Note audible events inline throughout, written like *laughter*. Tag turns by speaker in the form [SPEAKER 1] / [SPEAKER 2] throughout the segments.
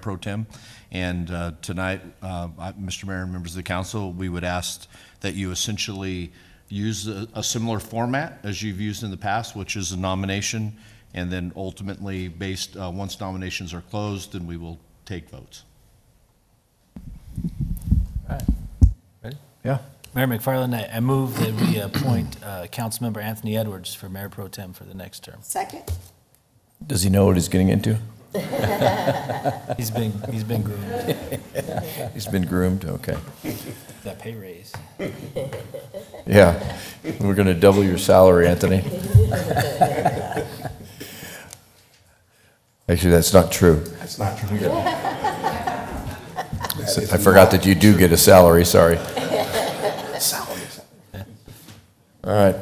[SPEAKER 1] pro tem. And uh, tonight, uh, I- Mr. Mayor and members of the council, we would ask that you essentially use a a similar format as you've used in the past, which is a nomination, and then ultimately, based, uh, once nominations are closed, then we will take votes.
[SPEAKER 2] Yeah.
[SPEAKER 3] Mayor McFarland, I, I move that we appoint uh, Councilmember Anthony Edwards for Mayor Pro Tem for the next term.
[SPEAKER 4] Second?
[SPEAKER 2] Does he know what he's getting into?
[SPEAKER 3] He's been, he's been groomed,
[SPEAKER 2] He's been groomed, okay.
[SPEAKER 3] that pay raise.
[SPEAKER 2] Yeah, we're going to double your salary, Anthony. Actually, that's not true.
[SPEAKER 5] That's not true.
[SPEAKER 2] *laughs* I forgot that you do get a salary, sorry. All right,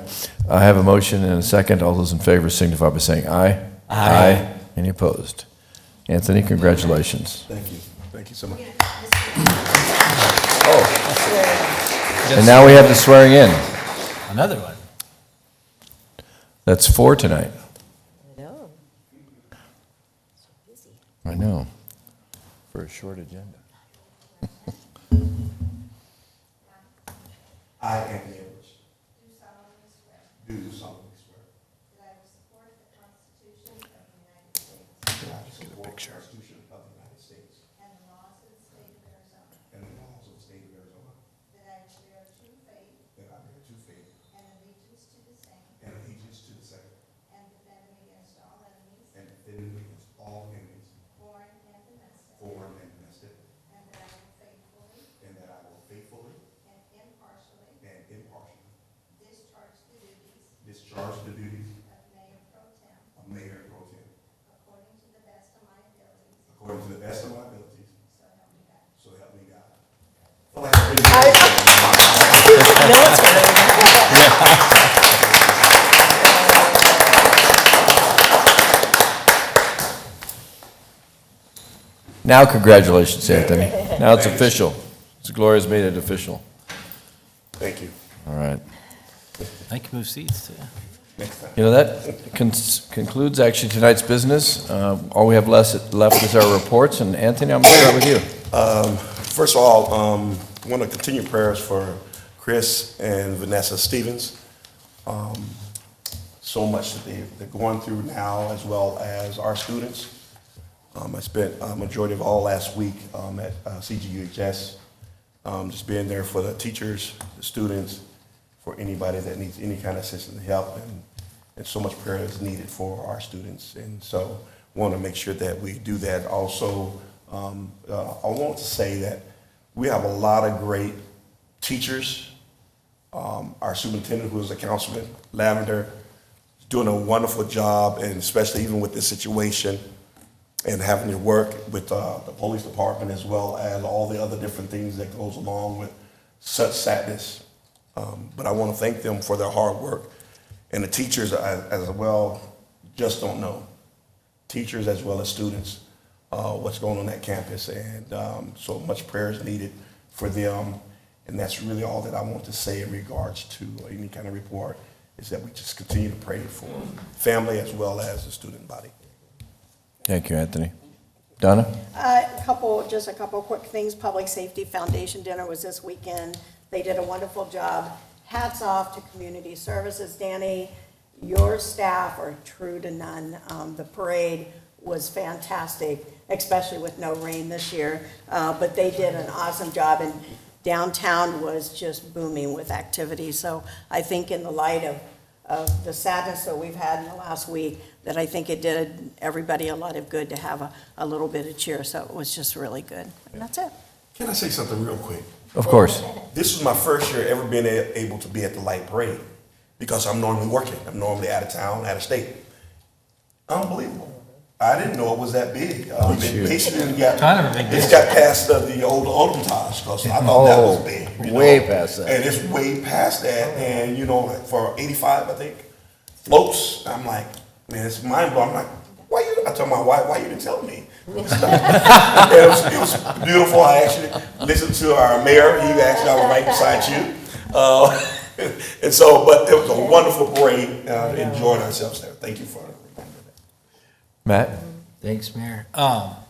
[SPEAKER 2] I have a motion and a second. All those in favor signify by saying aye. Aye. Any opposed? Anthony, congratulations.
[SPEAKER 5] Thank you. Thank you so much.
[SPEAKER 2] Oh. And now we have the swearing in.
[SPEAKER 3] Another one.
[SPEAKER 2] That's four tonight.
[SPEAKER 4] No. So busy.
[SPEAKER 2] I know. For a short agenda.
[SPEAKER 5] I, Anthony Edwards. Do solemnly swear. Do solemnly swear. That I will support the Constitution of the United States. And the laws of the state of Arizona. And the laws of the state of Arizona. That I will bear true faith. That I bear true faith. And allegiance to the same. And defend me against all enemies. Foreign and domestic. And that I will faithfully. And impartially. Discharge the duties. Of mayor pro tem. According to the best of my abilities. So help me God. So help me God.
[SPEAKER 2] Now, congratulations, Anthony. Now it's official. Gloria's made it official.
[SPEAKER 5] Thank you.
[SPEAKER 2] All right.
[SPEAKER 3] I can move seats, too.
[SPEAKER 2] You know, that cons- concludes actually tonight's business. Uh, All we have less- left is our reports, and Anthony, I'm going to start with you.
[SPEAKER 5] First of all, um, want to continue prayers for Chris and Vanessa Stevens. Um, So much that they, they're going through now, as well as our students. Um, I spent a majority of all last week, um, at uh, CGUHS, um, just being there for the teachers, the students, for anybody that needs any kind of assistance and help. And, and so much prayer is needed for our students. And so want to make sure that we do that. Also, um, uh, I want to say that we have a lot of great teachers um, our superintendent, who is a councilman, Lavender, is doing a wonderful job, and especially even with this situation, and having to work with uh, the police department as well as all the other different things that goes along with such sadness. Um, but I want to thank them for their hard work, and the teachers as, as well just don't know teachers as well as students, uh, what's going on at campus. And um, so much prayer is needed for them. And that's really all that I want to say in regards to any kind of report, is that we just continue to pray for family as well as the student body.
[SPEAKER 2] Thank you, Anthony. Donna?
[SPEAKER 4] Uh, A couple, just a couple quick things. Public Safety Foundation dinner was this weekend. They did a wonderful job. Hats off to community services. Danny, your staff are true to none. Um, The parade was fantastic, especially with no rain this year. Uh, But they did an awesome job, and downtown was just booming with activity. So I think in the light of, of the sadness that we've had in the last week, that I think it did everybody a lot of good to have a, a little bit of cheer, so it was just really good. And that's it.
[SPEAKER 5] Can I say something real quick?
[SPEAKER 2] Of course.
[SPEAKER 5] This was my first year ever being a- able to be at the light parade because I'm normally working. I'm normally out of town, out of state. Unbelievable. I didn't know it was that big. Um, it basically got,
[SPEAKER 3] Kind of a big
[SPEAKER 5] it's
[SPEAKER 3] deal.
[SPEAKER 5] got past the, the old Odomtage because I thought that was
[SPEAKER 2] Oh,
[SPEAKER 5] big. you
[SPEAKER 2] way past that.
[SPEAKER 5] And it's way past that. And, you know, like for 85, I think, floats, I'm like, man, it's mind blowing. I'm like, why you? I told my wife, why you didn't tell me? *laughs* it, was, it was beautiful. I actually listened to our mayor. He actually, I was right beside you. Uh, *laughs* and so, but it was a wonderful parade. Uh, Enjoyed ourselves there. Thank you for remembering that.
[SPEAKER 2] Matt?
[SPEAKER 3] Thanks, Mayor. Um,